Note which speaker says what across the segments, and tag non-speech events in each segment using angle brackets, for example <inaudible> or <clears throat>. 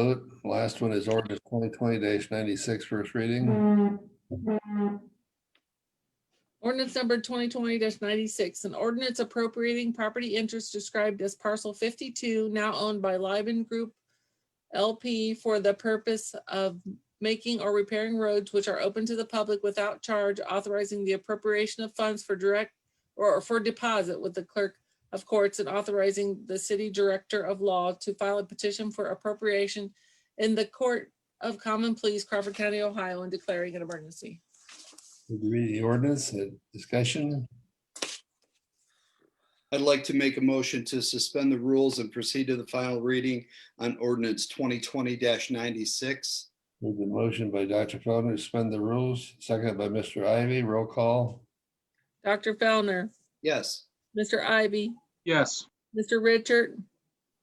Speaker 1: Vote. Last one is ordinance twenty twenty ninety-six, first
Speaker 2: Mm.
Speaker 1: reading.
Speaker 3: Ordinance number twenty twenty ninety-six, an ordinance appropriating property interest described as parcel fifty-two, now owned by Liban Group LP for the purpose of making or repairing roads which are open to the public without charge, authorizing the appropriation of funds for direct or for deposit with the clerk of courts and authorizing the city director of law to file a petition for appropriation in the court of common pleas Crawford County, Ohio, and declaring an emergency.
Speaker 1: Would you Read the ordinance, uh, discussion.
Speaker 4: I'd like to make a motion to suspend the rules and proceed to the final reading on ordinance twenty twenty ninety-six.
Speaker 1: Move the motion by Dr. Feldner, to suspend the rules, seconded by Mr. Ivy, roll call.
Speaker 3: Dr. Fellner,
Speaker 4: Yes,
Speaker 3: Mr. Ivy,
Speaker 5: yes,
Speaker 3: Mr. Richard,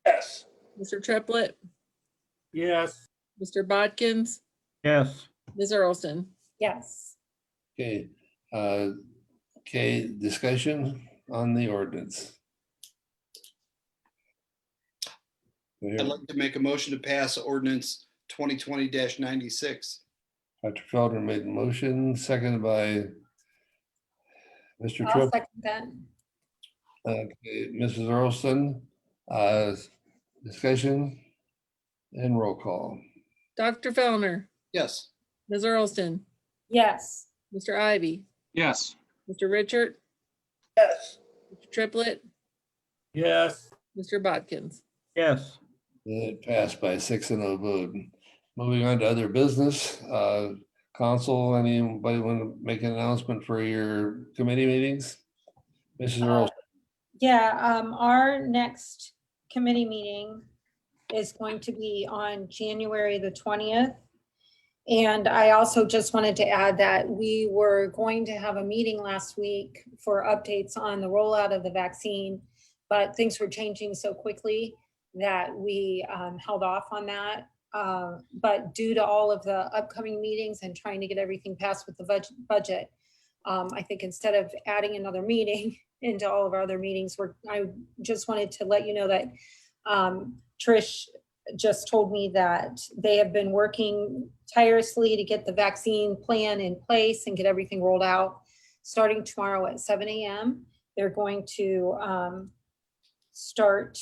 Speaker 1: Yes.
Speaker 3: Mr. Triplett,
Speaker 6: Yes.
Speaker 3: Mr. Bodkins,
Speaker 6: Yes.
Speaker 3: Ms. Earlston.
Speaker 2: yes,
Speaker 1: Okay, uh, okay, discussion on the ordinance. Do I hear-
Speaker 4: I'd like to make a motion to pass ordinance twenty twenty ninety-six.
Speaker 1: Dr. Feldner made the motion, seconded by Mr.
Speaker 2: I'll
Speaker 1: Triplett.
Speaker 2: second that.
Speaker 1: Okay, Mrs. Earlston, uh, discussion and roll call.
Speaker 3: Dr. Fellner,
Speaker 4: Yes,
Speaker 3: Ms. Earlston,
Speaker 2: Yes,
Speaker 3: Mr. Ivy,
Speaker 5: yes,
Speaker 3: Mr. Richard. Yes. Triplett,
Speaker 6: Yes.
Speaker 3: Mr. Bodkins.
Speaker 6: Yes.
Speaker 1: It passed by six and a vote. Moving on to other business, uh, council, anybody want to make an announcement for your committee meetings? Mrs. Earl,
Speaker 2: yeah, um, our next committee meeting is going to be on January the twentieth. And I also just wanted to add that we were going to have a meeting last week for updates on the rollout of the vaccine. But things were changing so quickly that we um, held off on that. Uh, But due to all of the upcoming meetings and trying to get everything passed with the budg- budget, um, I think instead of adding another meeting into all of our other meetings, we're, I just wanted to let you know that um, Trish just told me that they have been working tirelessly to get the vaccine plan in place and get everything rolled out. Starting tomorrow at seven AM, they're going to um, start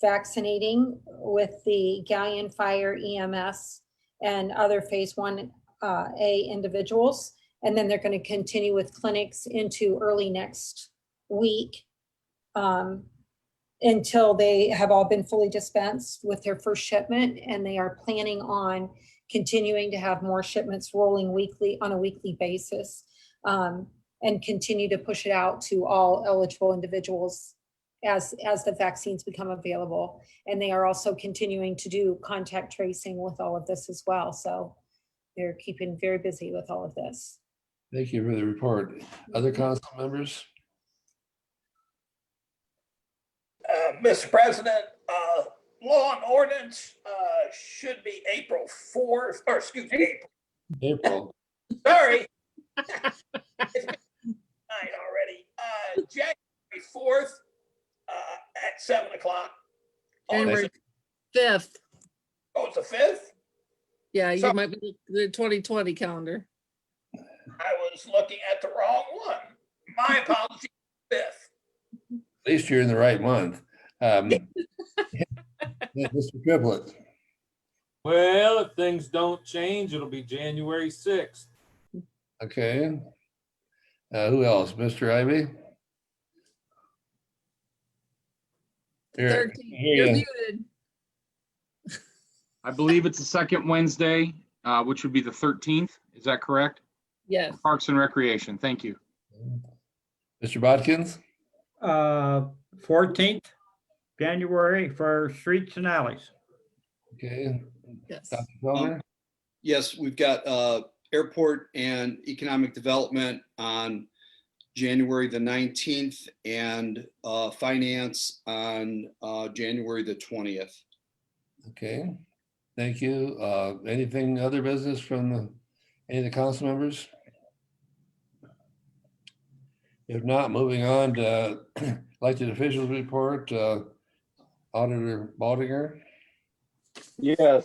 Speaker 2: vaccinating with the Galleon Fire EMS and other Phase One uh, A individuals. And then they're going to continue with clinics into early next week um, until they have all been fully dispensed with their first shipment. And they are planning on continuing to have more shipments rolling weekly on a weekly basis um, and continue to push it out to all eligible individuals as, as the vaccines become available. And they are also continuing to do contact tracing with all of this as well. So they're keeping very busy with all of this.
Speaker 1: thank you for the report. Other council members?
Speaker 7: Uh, Mr. President, uh, law and ordinance uh, should be April 4th, or excuse me,
Speaker 1: April,
Speaker 7: April, sorry. <laughs> It's been Nine already, Uh, January 4th uh, at 7 o'clock. On the-
Speaker 3: January fifth.
Speaker 7: Oh, it's the 5th?
Speaker 3: Yeah, you
Speaker 7: So-
Speaker 3: might be the twenty twenty calendar.
Speaker 7: I was looking at the wrong one. My apologies, 5th.
Speaker 1: at least you're in the right month. Um, yeah, Mr. Triplett,
Speaker 6: Well, if things don't change, it'll be January sixth.
Speaker 1: okay. Uh, who else? Mr. Ivy? Here,
Speaker 3: 13th.
Speaker 1: here
Speaker 3: You're
Speaker 1: you-
Speaker 3: muted.
Speaker 5: I believe it's the second Wednesday, uh, which would be the 13th, is that correct?
Speaker 3: Yes,
Speaker 5: Parks and Recreation, thank you.
Speaker 1: Mr. Bodkins?
Speaker 8: uh, fourteenth, January for streets and alleys.
Speaker 1: Okay.
Speaker 3: yes.
Speaker 1: Dr. Feldner?
Speaker 4: yes, we've got uh, airport and economic development on January the nineteenth and uh, finance on uh, January the twentieth.
Speaker 1: Okay, thank you. Uh, anything other business from the, any of the council members? If not, moving on to <clears throat> elected officials report, uh, Auditor Baldinger.
Speaker 6: Yes.